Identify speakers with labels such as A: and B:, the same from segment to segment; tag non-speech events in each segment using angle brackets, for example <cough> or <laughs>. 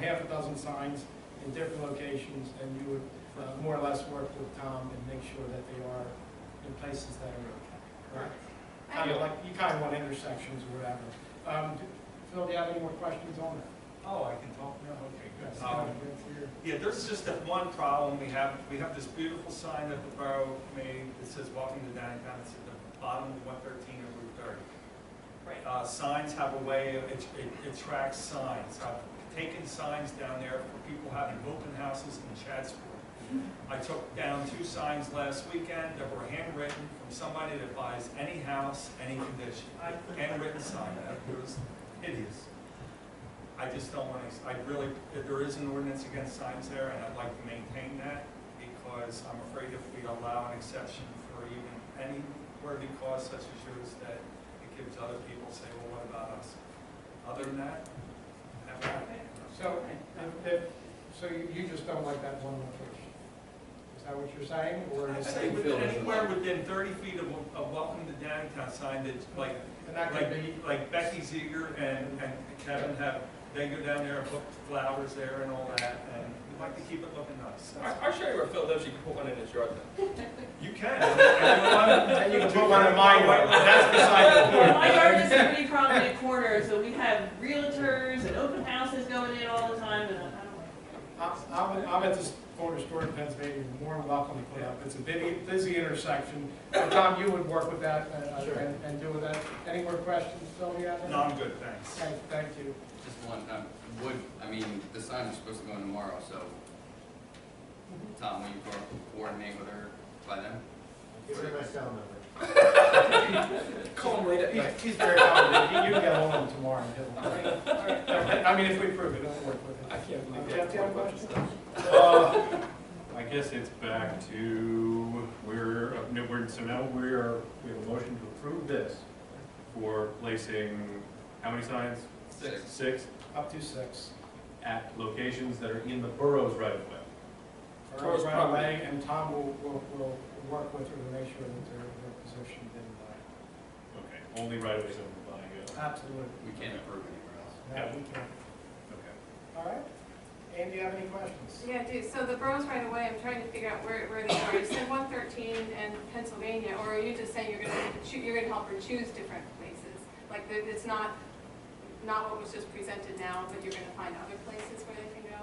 A: half a dozen signs in different locations, and you would uh, more or less work with Tom and make sure that they are in places that are okay. Kind of like, you kind of want intersections or whatever. Um, d- Phil, do you have any more questions on that?
B: Oh, I can talk now, okay,
A: That's
B: good.
A: kind
B: Um,
A: of good for your-
B: Yeah, there's just that one problem, we have, we have this beautiful sign that the borough made that says welcome to downtown, it's at the bottom of one thirteen and Route thirty.
C: Right.
B: Uh, signs have a way, of- it, it attracts signs, I've taken signs down there for people having open houses in Chadsport. I took down two signs last weekend that were handwritten from somebody that buys any house, any condition. Handwritten sign, that was hideous. I just don't want to, I really, there is an ordinance against signs there, and I'd like to maintain that, because I'm afraid if we allow an exception for even any worthy cause such as yours, that it gives other people, say, well, what about us? Other than that, have at it.
A: So, if- if- so you you just don't like that one location? Is that what you're saying, or
B: I'd
A: is
B: say
A: it?
B: within, anywhere within thirty feet of, of welcome to downtown sign that's like,
A: And that could be,
B: like, like Becky Ziegler and, and Kevin have, they go down there and put flowers there and all that, and we'd like to keep it looking nice.
D: I- I'll show you where Phil lives, you can put one in his yard then.
B: You can. <laughs> And
A: you can put one in my yard.
B: That's beside the
C: Well,
B: point.
C: My yard is a pretty prominent corner, so we have realtors and open houses going in all the time, and I don't like it.
A: I'm, I'm- I'm at this corner store in Pennsylvania, you're more than welcome to put up, it's a busy, busy intersection. Uh, Tom, you would work with that uh,
D: Sure.
A: and, and do with that. Any more questions, Sylvia?
B: No, I'm good, thanks.
A: Thank, thank you.
E: Just one, um, would, I mean, the sign is supposed to go in tomorrow, so, Tom, will you co- coordinate with her by then?
F: Give her my cell number.
D: Call him later.
A: He's, he's very confident, you can get hold of him tomorrow and he'll.
C: All right, all right.
A: I mean, if we prove it, it'll work with it.
D: I can't believe
A: Jeff, do you have a question?
D: that.
G: Uh, I guess it's back to, we're, no, we're- so now we are, we have a motion to approve this for placing, how many signs?
D: Six.
G: Six,
A: Up to six.
G: at locations that are in the borough's right of way.
A: Carl's
D: Carl's
A: right
D: property.
A: away, and Tom will, will, will work with her to make sure that they're, they're positioned in,
G: Okay, only right of ways owned by,
A: uh, absolutely.
E: We can't approve anywhere else.
A: Yeah, we can.
G: uh, okay.
A: All right. Anne, do you have any questions?
H: Yeah, I do. So the boroughs right away, I'm trying to figure out where, where they are. You said one thirteen and Pennsylvania, or are you just saying you're gonna, choo- you're gonna help her choose different places? Like, that it's not, not what was just presented now, but you're gonna find other places where they can go?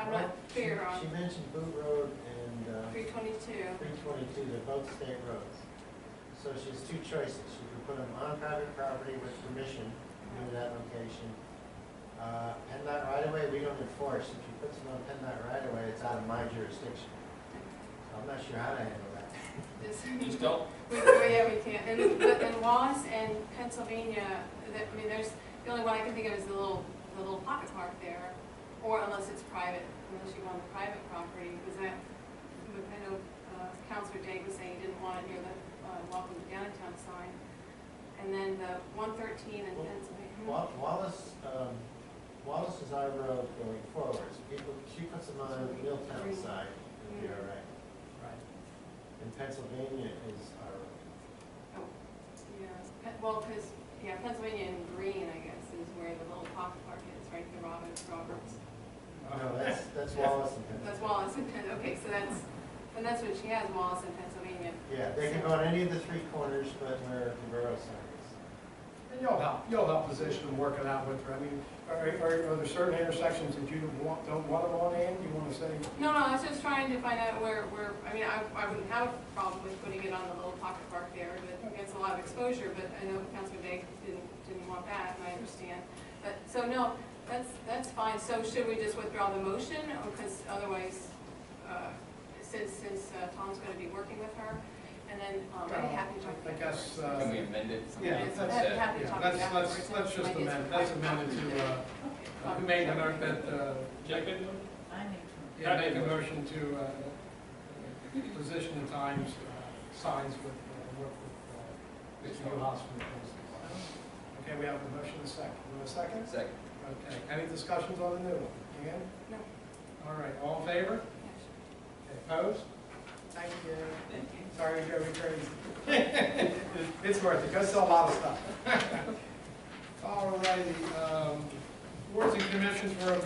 H: I'm not
F: She-
H: clear
F: She
H: on
F: mentioned Boot Road and uh,
H: three twenty-two.
F: three twenty-two, they're both state roads. So she has two choices. She could put them on private property with permission to that location. Uh, PennDOT right away, we don't enforce. If she puts them on PennDOT right away, it's out of my jurisdiction. So I'm not sure how to handle that.
D: Just don't,
H: We, we- yeah, we can't. And, but then Wallace and Pennsylvania, that, I mean, there's, the only one I can think of is the little, the little pocket park there, or unless it's private, unless you want the private property, because that, I know, uh, Counselor Day was saying he didn't want it near the, uh, welcome to downtown sign. And then the one thirteen in
F: Well,
H: Pennsylvania.
F: Wa- Wallace, um, Wallace is our road going forward. People, she puts them on the Milltown side, it'll be all right.
A: Right.
F: And Pennsylvania is our road.
H: Oh, Yeah, Pe- well, because, yeah, Pennsylvania and Green, I guess, is where the little pocket park is, right, the Roberts, Roberts.
F: No, that's, that's Wallace and Pennsylvania.
H: That's Wallace and Penn, okay, so that's, and that's what she has, Wallace in Pennsylvania.
F: Yeah, they can go on any of the three corners but where the borough sign
A: And you'll help, you'll help position and work it out with her. I mean, are, are, are there certain intersections that you want, don't want them on, Anne? You want to say,
H: No, no, I was just trying to find out where, where, I mean, I, I wouldn't have a problem with putting it on the little pocket park there, but it's a lot of exposure, but I know Councilor Day didn't, didn't want that, and I understand. But, so no, that's, that's fine, so should we just withdraw the motion, because otherwise, uh, since, since uh, Tom's gonna be working with her, and then, um, I'd be happy to talk.
A: I guess, uh,
E: Can we amend it?
A: yeah,
H: Yes,
A: that's-
H: I'd be happy to
A: yeah,
H: talk
A: let's, let's,
H: afterwards.
A: let's just
H: Ideas for
A: amend, let's
H: private
A: amend it
H: property.
A: to, uh, uh, who made the note that, uh,
D: Jack, good one?
C: I need
A: yeah, make a motion to, uh, position the times, uh, signs with, uh, work with, uh, the new hospital. Okay, we have a motion, and a second. Do we have a second?
E: Second.
A: Okay, any discussions on the new one? Again?
H: No.
A: All right, all in favor?
H: Yes.
A: Opposed? Thank you.
C: Thank you.
A: Sorry, we drove you crazy. <laughs> It's worth it, go sell a lot <laughs> of stuff. All righty, um, boards and commissions were